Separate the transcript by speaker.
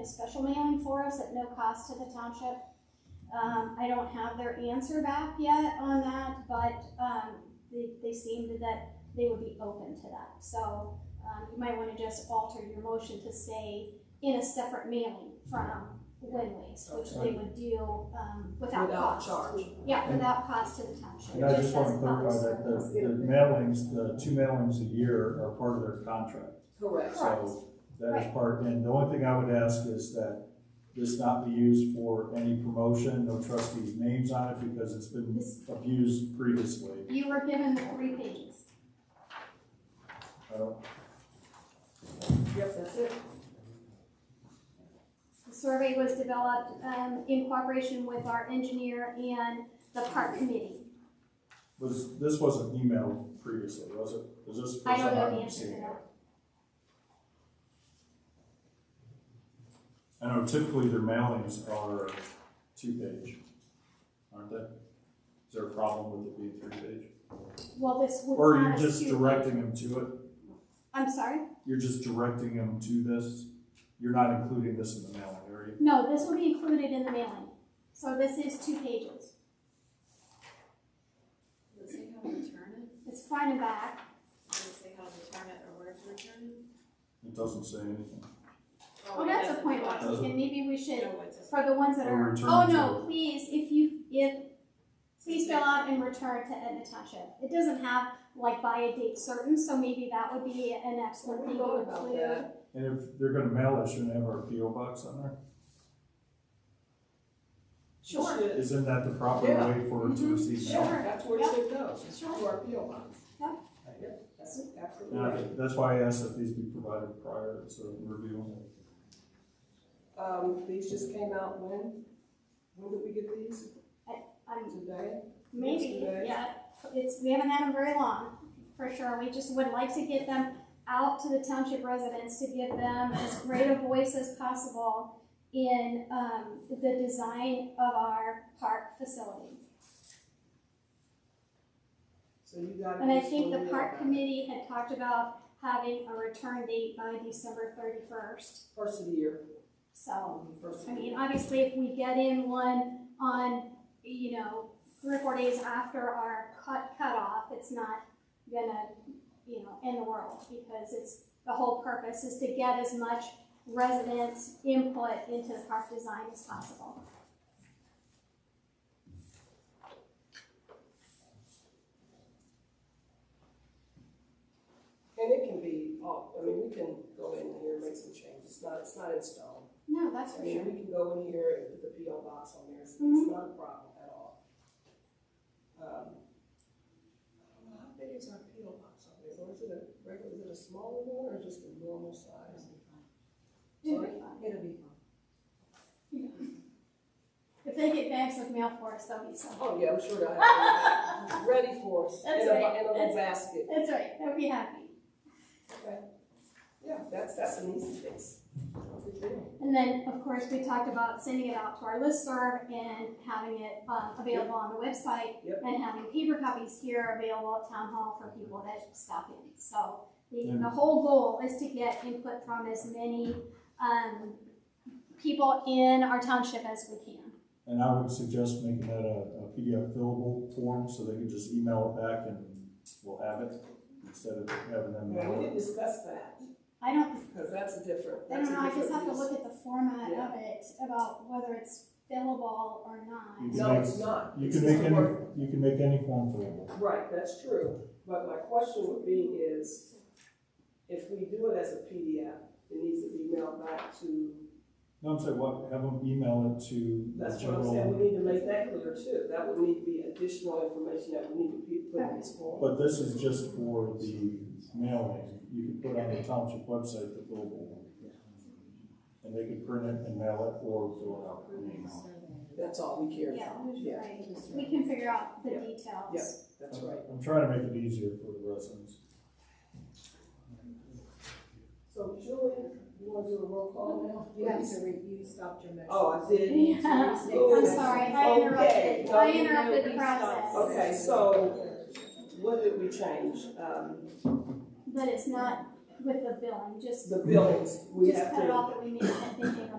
Speaker 1: a special mailing for us at no cost to the township. Um, I don't have their answer back yet on that, but, um, they, they seemed that they would be open to that. So, um, you might wanna just alter your motion to say in a separate mailing from Wind Waste, which they would do, um, without
Speaker 2: Without
Speaker 1: cost.
Speaker 2: charge.
Speaker 1: Yeah, without cost to the township.
Speaker 3: And I just want
Speaker 1: as
Speaker 3: to
Speaker 1: a
Speaker 3: clarify
Speaker 1: public
Speaker 3: that
Speaker 1: service.
Speaker 3: the, the mailings, the two mailings a year are part of their contract.
Speaker 2: Correct.
Speaker 3: So that is part, and the only thing I would ask is that this not be used for any promotion, no trustees' names on it because it's been
Speaker 1: This-
Speaker 3: abused previously.
Speaker 1: You were given the three pages.
Speaker 3: I don't,
Speaker 2: Yep, that's it.
Speaker 1: The survey was developed um, in cooperation with our engineer and the park committee.
Speaker 3: was, this wasn't emailed previously, was it? Was this? the
Speaker 1: I
Speaker 3: first
Speaker 1: don't
Speaker 3: time
Speaker 1: know the
Speaker 3: I've
Speaker 1: answer to
Speaker 3: seen it?
Speaker 1: that.
Speaker 3: I know typically their mailings are two-page, aren't they? Is there a problem with it being three-page?
Speaker 1: Well, this would.
Speaker 3: Or you're
Speaker 1: not
Speaker 3: just
Speaker 1: assume-
Speaker 3: directing them to it?
Speaker 1: I'm sorry?
Speaker 3: You're just directing them to this? You're not including this in the mailing, are you?
Speaker 1: No, this will be included in the mailing. So this is two pages.
Speaker 4: Does it say how to return it?
Speaker 1: It's front and back.
Speaker 4: Does it say how to return it or where to return it?
Speaker 3: It doesn't say anything.
Speaker 1: Oh, that's a point,
Speaker 4: one.
Speaker 1: Lexi, and maybe we should,
Speaker 4: No, it says-
Speaker 1: for the ones that
Speaker 3: Or
Speaker 1: are,
Speaker 3: return
Speaker 1: oh
Speaker 3: to-
Speaker 1: no, please, if you, if, please fill out and return to Edna Township. It doesn't have like by a date certain, so maybe that would be an excellent
Speaker 2: We
Speaker 1: thing
Speaker 2: thought
Speaker 1: to
Speaker 2: about
Speaker 1: include.
Speaker 2: that.
Speaker 3: And if they're gonna mail it, shouldn't they have our PO box on there?
Speaker 1: Sure.
Speaker 2: Should-
Speaker 3: Isn't that the proper
Speaker 2: Yeah.
Speaker 3: way for it to receive mail?
Speaker 1: Sure.
Speaker 2: That's where it should go, it's to
Speaker 1: Sure.
Speaker 2: our PO box.
Speaker 1: Yeah.
Speaker 2: Yep, that's absolutely
Speaker 3: And I
Speaker 2: right.
Speaker 3: think- that's why I asked that these be provided prior to reviewing it.
Speaker 2: Um, these just came out when? When did we get these?
Speaker 1: I'm
Speaker 2: Today?
Speaker 1: Maybe,
Speaker 2: Yesterday.
Speaker 1: yeah, it's, we haven't had them very long, for sure, we just would like to get them out to the township residents to give them as great a voice as possible in, um, the design of our park facility.
Speaker 2: So you got.
Speaker 1: And I
Speaker 2: these
Speaker 1: think
Speaker 2: when
Speaker 1: the
Speaker 2: we
Speaker 1: park
Speaker 2: got
Speaker 1: committee had talked about having a return date by December thirty-first,
Speaker 2: First of the year,
Speaker 1: so,
Speaker 2: first of the
Speaker 1: Oh, I
Speaker 2: year.
Speaker 1: mean, obviously, if we get in one on, you know, three or four days after our cut, cutoff, it's not gonna, you know, end the world, because it's, the whole purpose is to get as much resident input into the park design as possible.
Speaker 2: And it can be, all- I mean, we can go in here and make some changes, it's not, it's not in stone.
Speaker 1: No, that's
Speaker 2: I
Speaker 1: for
Speaker 2: mean,
Speaker 1: sure.
Speaker 2: we can go in here and put the PO box on there, it's, it's
Speaker 1: Mhm.
Speaker 2: not a problem at all. Um, I don't know, how big is our PO box on there, or is it a regular, is it a smaller one, or just a normal size?
Speaker 1: It'll be fun.
Speaker 2: It'll be fine.
Speaker 1: If they get bags of mail for us, they'll be so,
Speaker 2: Oh, yeah, I'm sure that, ready for us, in a,
Speaker 1: That's right, that's-
Speaker 2: in a little basket.
Speaker 1: that's right, they'll be happy.
Speaker 2: Okay. Yeah, that's, that's an easy fix. No big deal.
Speaker 1: And then, of course, we talked about sending it out to our listserv and having it um, available on the website
Speaker 2: Yep.
Speaker 1: and having paper copies here available at town hall for people that stop in. So the, the
Speaker 3: Yeah.
Speaker 1: whole goal is to get input from as many um, people in our township as we can.
Speaker 3: And I would suggest making that a, a PDF fillable form, so they can just email it back and we'll have it, instead of having them
Speaker 2: Yeah, we
Speaker 3: mail it.
Speaker 2: didn't discuss that,
Speaker 1: I don't,
Speaker 2: because that's a different,
Speaker 1: I
Speaker 2: that's
Speaker 1: don't
Speaker 2: a
Speaker 1: know, I just have
Speaker 2: different
Speaker 1: to
Speaker 2: use.
Speaker 1: look at the format
Speaker 2: Yeah.
Speaker 1: of it about whether it's fillable or not.
Speaker 3: You can
Speaker 2: No,
Speaker 3: make-
Speaker 2: it's not.
Speaker 3: You
Speaker 2: It's
Speaker 3: can
Speaker 2: just
Speaker 3: make
Speaker 2: a
Speaker 3: any,
Speaker 2: word.
Speaker 3: you can make any form fillable.
Speaker 2: Right, that's true, but my question would be is, if we do it as a PDF, it needs to be mailed back to,
Speaker 3: No, I'm saying, what, have them email it to the
Speaker 2: that's what I'm saying,
Speaker 3: general.
Speaker 2: we need to make that clear too. That would need to be additional information that we need to be put in this form.
Speaker 3: But this is just for the mailing, you can put on the township website the fillable one. And they can print it and mail it or fill it out. and email
Speaker 2: That's all we care
Speaker 1: Yeah,
Speaker 2: about.
Speaker 1: right. we can figure out the
Speaker 2: Yeah.
Speaker 1: details.
Speaker 2: Yeah. That's
Speaker 3: it.
Speaker 2: right.
Speaker 3: I'm trying to make it easier for the residents.
Speaker 2: So Julie, you want to do a roll call now?
Speaker 5: You have to review, stopped your motion.
Speaker 2: Oh, I did.
Speaker 1: Yeah, I'm sorry, I
Speaker 2: Okay.
Speaker 1: interrupted, I interrupted the process,
Speaker 2: Okay, so what did we change? Um,
Speaker 1: but it's not with the billing, just,
Speaker 2: the billings, we
Speaker 1: just
Speaker 2: have to.
Speaker 1: cut it off that we made, I think, in the